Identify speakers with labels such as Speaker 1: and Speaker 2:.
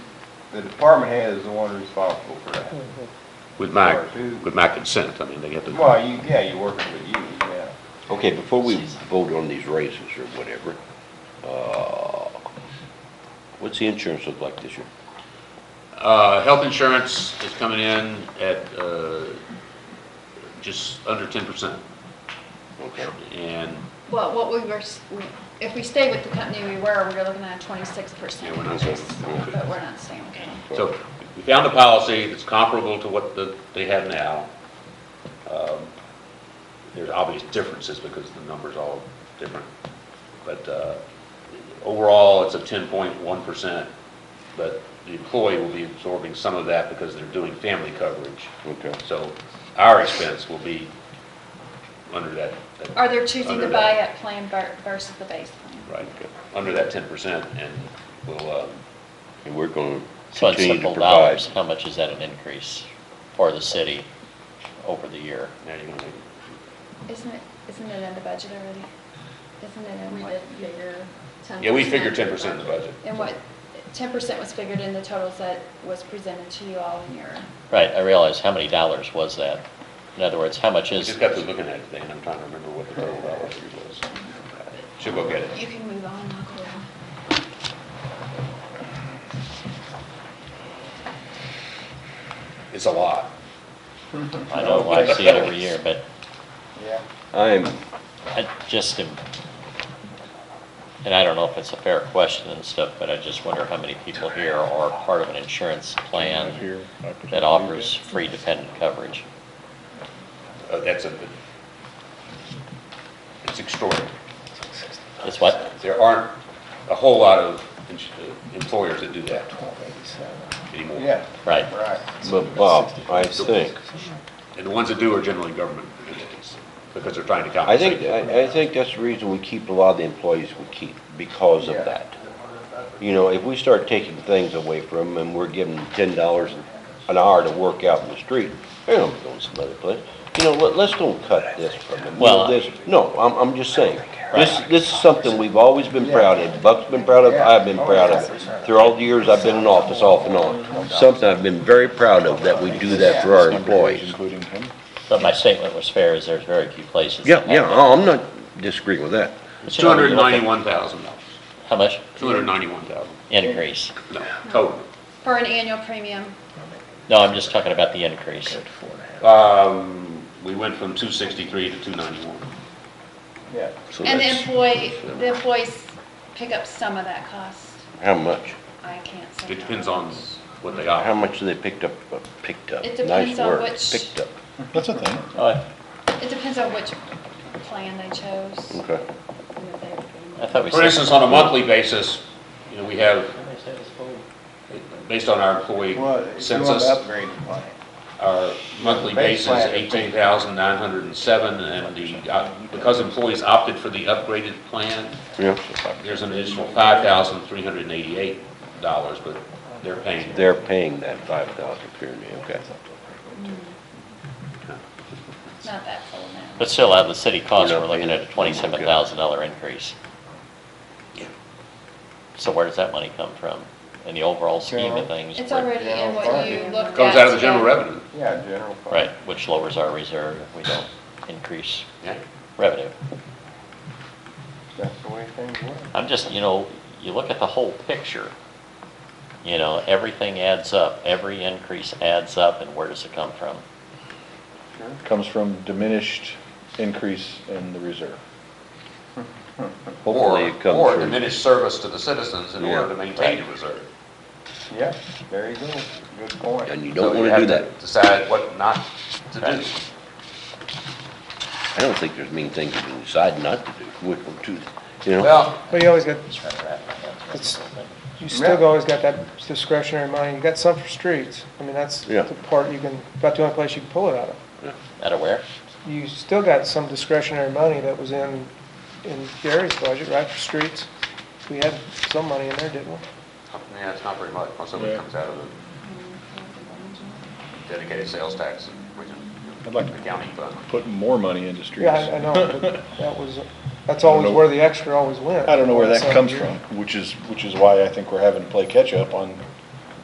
Speaker 1: the department head is the one responsible for that.
Speaker 2: With my,
Speaker 1: Or who-
Speaker 2: with my consent, I mean, they have to,
Speaker 1: Well, you, yeah, you're working with you, yeah.
Speaker 3: Okay, before we vote on these raises or whatever, uh, what's the insurance look like this year?
Speaker 2: uh, health insurance is coming in at, uh, just under ten percent.
Speaker 3: Okay,
Speaker 2: And,
Speaker 4: Well, what we were, s- we- if we stay with the company we were, we we're looking at twenty-six
Speaker 2: yeah,
Speaker 4: percent.
Speaker 2: we're not saying.
Speaker 4: But we're not staying with them.
Speaker 2: So we found a policy that's comparable to what the, they have now. Um, There's obvious differences because the number's all different. But uh, overall, it's a 10.1%, but the employee will be absorbing some of that because they're doing family coverage.
Speaker 3: okay.
Speaker 2: So our expense will be under that, that-
Speaker 4: Are they choosing
Speaker 2: Under
Speaker 4: the
Speaker 2: that.
Speaker 4: buyout plan ver- versus the base plan?
Speaker 2: right, under that 10% and will, uh,
Speaker 3: And we're gonna
Speaker 5: So in
Speaker 3: continue to
Speaker 5: simple
Speaker 3: provide.
Speaker 5: dollars, how much is that an increase for the city over the year?
Speaker 2: now you're going to,
Speaker 4: Isn't it, isn't it in the budget already? Isn't it in
Speaker 6: We
Speaker 4: what?
Speaker 6: did figure ten.
Speaker 2: yeah, we figured 10% in the budget.
Speaker 4: And what, ten percent was figured in the totals that was presented to you all in your,
Speaker 5: Right, I realize, how many dollars was that? In other words, how much
Speaker 2: I
Speaker 5: is,
Speaker 2: just got to looking at it today, and I'm trying to remember what the total dollar figure was. Should go get it.
Speaker 4: you can move on, I'll go on.
Speaker 2: It's a lot.
Speaker 5: I know, I see it every year, but
Speaker 1: Yeah.
Speaker 3: I'm,
Speaker 5: I just am, and I don't know if it's a fair question and stuff, but I just wonder how many people here are part of an insurance plan that offers free dependent coverage.
Speaker 2: Uh, That's a, it's extraordinary.
Speaker 5: It's what?
Speaker 2: There aren't a whole lot of ins- uh, employers that do that anymore.
Speaker 1: Yeah,
Speaker 5: Right.
Speaker 1: right.
Speaker 3: but Bob, I think,
Speaker 2: And the ones that do are generally government entities, because they're trying to
Speaker 3: I
Speaker 2: compensate.
Speaker 3: think, I, I think that's the reason we keep a lot of the employees we keep, because of
Speaker 1: Yeah.
Speaker 3: that. You know, if we start taking things away from them and we're giving them ten dollars an hour to work out in the street, they're gonna go some other place. You know, let, let's don't cut this from them. You know,
Speaker 5: Well, I-
Speaker 3: this- No, I'm, I'm just saying, this,
Speaker 5: Right.
Speaker 3: this is something we've always been proud of. Buck's been proud of, I've been proud of it. Through all the years I've been in office, off and on. Something I've been very proud of, that we do that for our employees.
Speaker 7: Including him?
Speaker 5: But my statement was fair, is there's very few places. that
Speaker 3: Yeah,
Speaker 5: have
Speaker 3: yeah,
Speaker 5: that.
Speaker 3: I'm not disagreeing with that.
Speaker 5: But you know, when you look at-
Speaker 2: $291,000.
Speaker 5: How much
Speaker 2: 291,000,
Speaker 5: increase?
Speaker 2: no, total.
Speaker 4: For an annual premium,
Speaker 5: No, I'm just talking about the increase.
Speaker 2: Um, We went from 263 to 291.
Speaker 1: Yeah.
Speaker 3: So
Speaker 4: and the
Speaker 3: that's-
Speaker 4: employee, the employees pick up some of that cost,
Speaker 3: How much?
Speaker 4: I can't say.
Speaker 2: It
Speaker 4: how
Speaker 2: depends
Speaker 4: much.
Speaker 2: on what they
Speaker 3: How
Speaker 2: offer.
Speaker 3: much do they picked up, uh, picked up?
Speaker 4: It depends
Speaker 3: Nice
Speaker 4: on
Speaker 3: word,
Speaker 4: which-
Speaker 3: Picked up,
Speaker 7: That's a thing.
Speaker 5: Oh,
Speaker 4: It depends on which plan they chose.
Speaker 3: okay.
Speaker 4: and if they were getting-
Speaker 5: I thought we said.
Speaker 2: For instance, on a monthly basis, you know, we have, based on our employee
Speaker 1: Well, if you want
Speaker 2: census,
Speaker 1: to upgrade the plan.
Speaker 2: our monthly
Speaker 1: Base
Speaker 2: base is
Speaker 1: plan.
Speaker 2: eighteen thousand nine hundred and seven, and the, uh, because employees opted for the upgraded plan,
Speaker 3: Yeah,
Speaker 2: there's an additional five thousand three hundred and eighty-eight dollars, but they're paying.
Speaker 3: they're paying that five thousand period, okay.
Speaker 4: Not that full amount.
Speaker 5: But still, out of the city cost,
Speaker 3: You're
Speaker 5: we're
Speaker 3: not
Speaker 5: looking
Speaker 3: paying
Speaker 5: at a
Speaker 3: it.
Speaker 5: twenty-seven thousand dollar increase.
Speaker 2: Yeah.
Speaker 5: So where does that money come from? In the overall scheme of things?
Speaker 4: It's already in what you looked at.
Speaker 2: Comes out of the general
Speaker 4: today.
Speaker 2: revenue.
Speaker 1: Yeah, general fund.
Speaker 5: Right, which lowers our reserve if we don't increase
Speaker 2: Yeah.
Speaker 5: revenue.
Speaker 1: That's the way things work.
Speaker 5: I'm just, you know, you look at the whole picture, you know, everything adds up, every increase adds up, and where does it come from?
Speaker 7: Comes from diminished increase in the reserve.
Speaker 3: Hopefully it comes
Speaker 2: Or
Speaker 3: from-
Speaker 2: diminished service to the citizens in order
Speaker 3: Yeah.
Speaker 2: to maintain the reserve.
Speaker 1: Yeah, there you go. Good point.
Speaker 3: And you
Speaker 2: So
Speaker 3: don't
Speaker 2: you
Speaker 3: wanna
Speaker 2: have
Speaker 3: do that.
Speaker 2: Decide what not to do.
Speaker 5: Right.
Speaker 3: I don't think there's mean things you can decide not to do, which will do, you know?
Speaker 2: Well,
Speaker 8: Well, you always got,
Speaker 5: Just trying to wrap my head around
Speaker 8: It's-
Speaker 5: it.
Speaker 8: you still always got that discretionary money, you got some for streets, I mean, that's
Speaker 3: Yeah.
Speaker 8: the part you can, about the only place you can pull it out of.
Speaker 5: Out of where?
Speaker 8: You still got some discretionary money that was in, in Gary's budget, right, for streets? We had some money in there, didn't we?
Speaker 2: yeah, it's not very much, most of it comes out of the dedicated sales tax, which
Speaker 7: I'd
Speaker 2: is
Speaker 7: like to-
Speaker 2: the county fund.
Speaker 7: Put more money into streets.
Speaker 8: Yeah, I I know, but that was, that's always where the extra always went.
Speaker 7: I don't know where that
Speaker 8: Some
Speaker 7: comes
Speaker 8: year.
Speaker 7: from, which is, which is why I think we're having to play catch-up on